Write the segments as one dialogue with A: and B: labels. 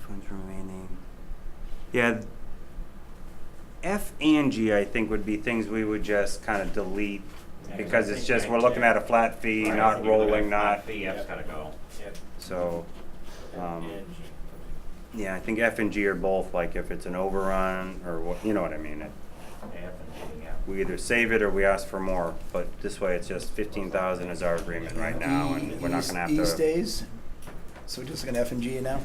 A: funds remaining. Yeah. F and G, I think, would be things we would just kind of delete because it's just, we're looking at a flat fee,
B: Right, I
A: not
B: think you're looking
A: rolling,
B: at
A: not,
B: fee, F's gotta go.
C: Yep.
A: so. um,
C: And G.
A: Yeah, I think F and G are both, like if it's an overrun or what, you know what I mean? it-
B: F and G, yeah.
A: We either save it or we ask for more, but this way it's just fifteen thousand is our agreement right now and we're not gonna have to.
D: East days, so we're just gonna F and G it now?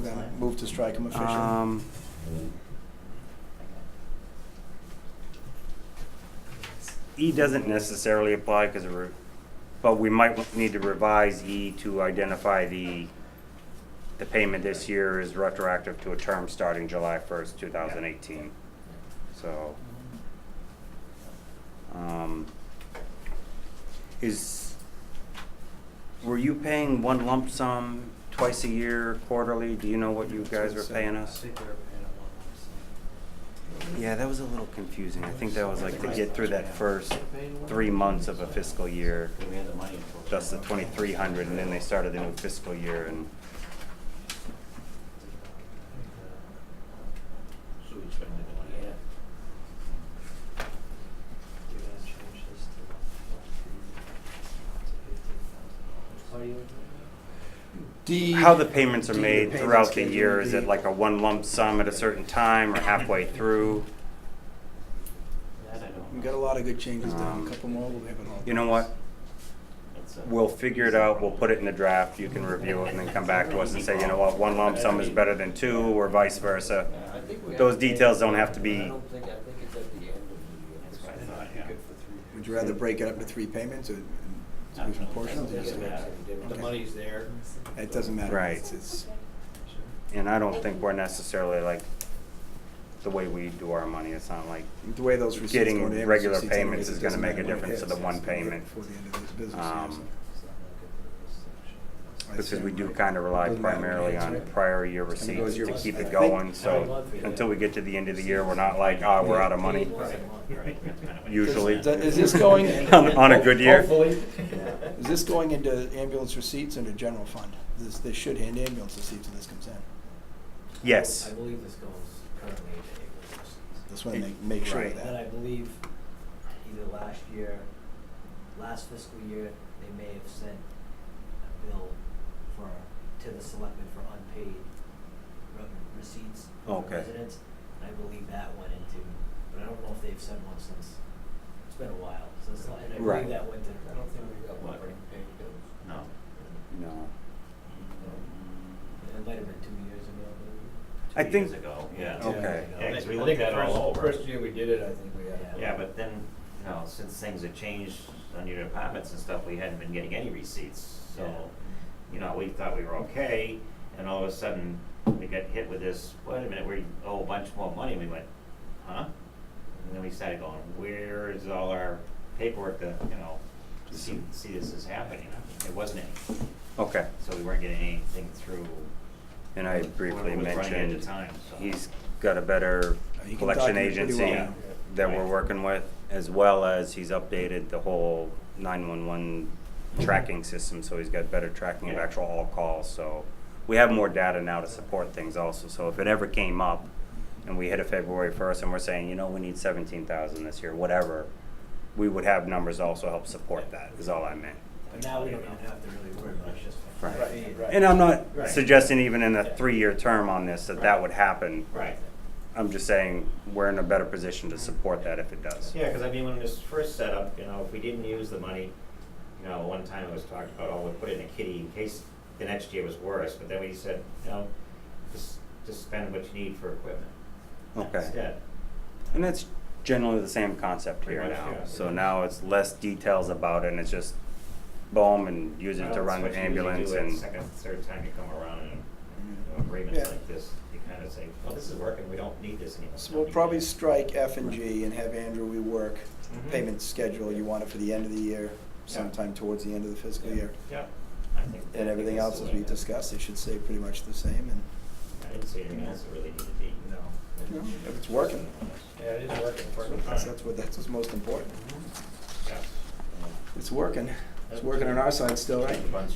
D: Then Move to strike them officially.
A: Um, E doesn't necessarily apply because of, re- but we might w- need to revise E to identify the, the payment this year is retroactive to a term starting July first, two thousand eighteen. So, um, is, were you paying one lump sum twice a year, quarterly? Do you know what you guys were paying us? Yeah, that was a little confusing. I think that was like to get through that first three months of a fiscal year,
B: Do we have the money for?
A: that's the twenty-three hundred, and then they started the new fiscal year and,
B: So we spend the money, yeah.
D: D.
A: how the payments are
D: D, the
A: made
D: payment
A: throughout the
D: schedule
A: year, is
D: D.
A: it like a one lump sum at a certain time or halfway through?
B: That I don't
D: We
B: know.
D: got a lot of good changes done,
A: Um,
D: a couple more, we'll have it all.
A: You know what?
B: It's a-
A: We'll figure it out, we'll put it in the draft, you can review it and then come back to us and say, you know what, one lump sum is better than two, or vice versa.
C: I think we
A: Those
C: have to-
A: details don't have to be-
C: I don't think, I think it's at the end of
B: That's
C: the
B: what
C: year.
B: I thought, yeah.
D: Would you rather break it up into three payments or in different portions? or just-
C: The
D: Okay.
C: money's there.
D: It doesn't matter.
A: Right.
D: It's- it's-
A: And I don't think we're necessarily like, the way we do our money, it's not like
D: the way those receipts
A: Getting
D: go to Amazon
A: regular
D: receipts anyways,
A: payments
D: it
A: is gonna
D: doesn't
A: make a
D: matter when it
A: difference to
D: hits.
A: the one
D: It's gonna hit
A: payment.
D: Before the end of this business year,
A: Um,
D: so I
A: Because we
D: assume,
A: do
D: right?
A: kind of rely
D: Doesn't matter when it
A: primarily
D: hits,
A: on
D: right?
A: prior year
D: It's gonna go
A: receipts
D: zero.
A: to keep
D: I
A: it
D: think-
A: going, so until we get to the end of the year, we're not like, ah, we're out of money,
B: Right, that's kind of what-
A: usually.
D: Does- Is this going?
A: On- on a good year?
D: Hopefully. Is this going into ambulance receipts and the general fund? This, they should hand ambulance receipts when this comes in.
A: Yes,
E: I believe this goes currently to April first.
D: That's when they make sure
A: Right.
D: of
E: Then I
D: that.
E: believe either last year, last fiscal year, they may have sent a bill for, to the selectmen for unpaid rev- receipts from
A: Okay.
E: residents. And I believe that went into, but I don't know if they've sent one since, it's been a while, since, and I
A: Right.
E: believe that went to.
C: I don't think we got one
B: What?
C: for paying bills.
B: No.
A: no.
E: It might have been two years ago,
A: I
B: Two
A: think-
B: years ago, yeah.
E: maybe.
A: Okay.
E: Two
B: Yeah,
E: years
B: 'cause
E: ago.
B: we looked at it all
C: First-
B: over.
C: First year we did it, I think we had.
B: Yeah, but then, you know, since things have changed on your departments and stuff, we hadn't been getting any receipts, so, you know, we thought we were okay, and all of a sudden, we got hit with this, wait a minute, we owe a bunch more money, and we went, huh? And then we started going, where is all our paperwork that, you know, to see, see this is happening, it wasn't any,
A: Okay,
B: so we weren't getting anything through.
A: and I
B: We
A: briefly
B: were Running at
A: mentioned,
B: the time, so.
A: he's got a better
D: He can
A: collection
D: document pretty
A: agency
D: well.
A: that we're
B: Right.
A: working with, as well as he's updated the whole nine-one-one tracking system, so he's got better tracking of
B: Yeah.
A: actual all calls, so. We have more data now to support things also, so if it ever came up and we hit a February first and we're saying, you know, we need seventeen thousand this year, whatever, we would have numbers also help support that, is all I meant.
E: But now we don't even have to really worry about it, it's just. a
A: Right.
E: fee.
C: Right.
A: And I'm not
B: Right.
A: suggesting even in a three-year term on this that that would happen.
B: Right.
A: I'm just saying, we're in a better position to support that if it does.
B: Yeah, because I mean, when this first set up, you know, if we didn't use the money, you know, one time it was talked about, oh, we put it in a kitty in case the next year was worse, but then we said, no, just, just spend what you need for equipment
A: Okay.
B: instead.
A: And that's generally the same concept here
B: Pretty much,
A: now.
B: yeah.
A: So now it's less details about it, and it's just boom, and use it
B: Well,
A: to
B: that's
A: run
B: what
A: an
B: you usually
A: ambulance
B: do it
A: and,
B: Second, third time you come around in an agreement
D: Yeah.
B: like this, you kind of say, well, this is working, we don't need this anymore.
D: So we'll probably strike F and G and have Andrew rework
B: Mhm.
D: payment schedule. You want it for the end of the year, sometime towards the end of the fiscal year.
B: Yeah. I think- I
D: And
B: think
D: everything
B: that's
D: else
B: the
D: as
B: way
D: we
B: it is.
D: discussed, it should stay pretty much the same and,
B: I didn't see anything else that really needed to be.
C: No.
D: you know, if it's working.
C: Yeah, it is working,
B: Working
C: working.
B: fine.
D: That's that's what, that's what's most important.
B: Yeah.
D: It's working. It's working on our side still, right?
B: Bunch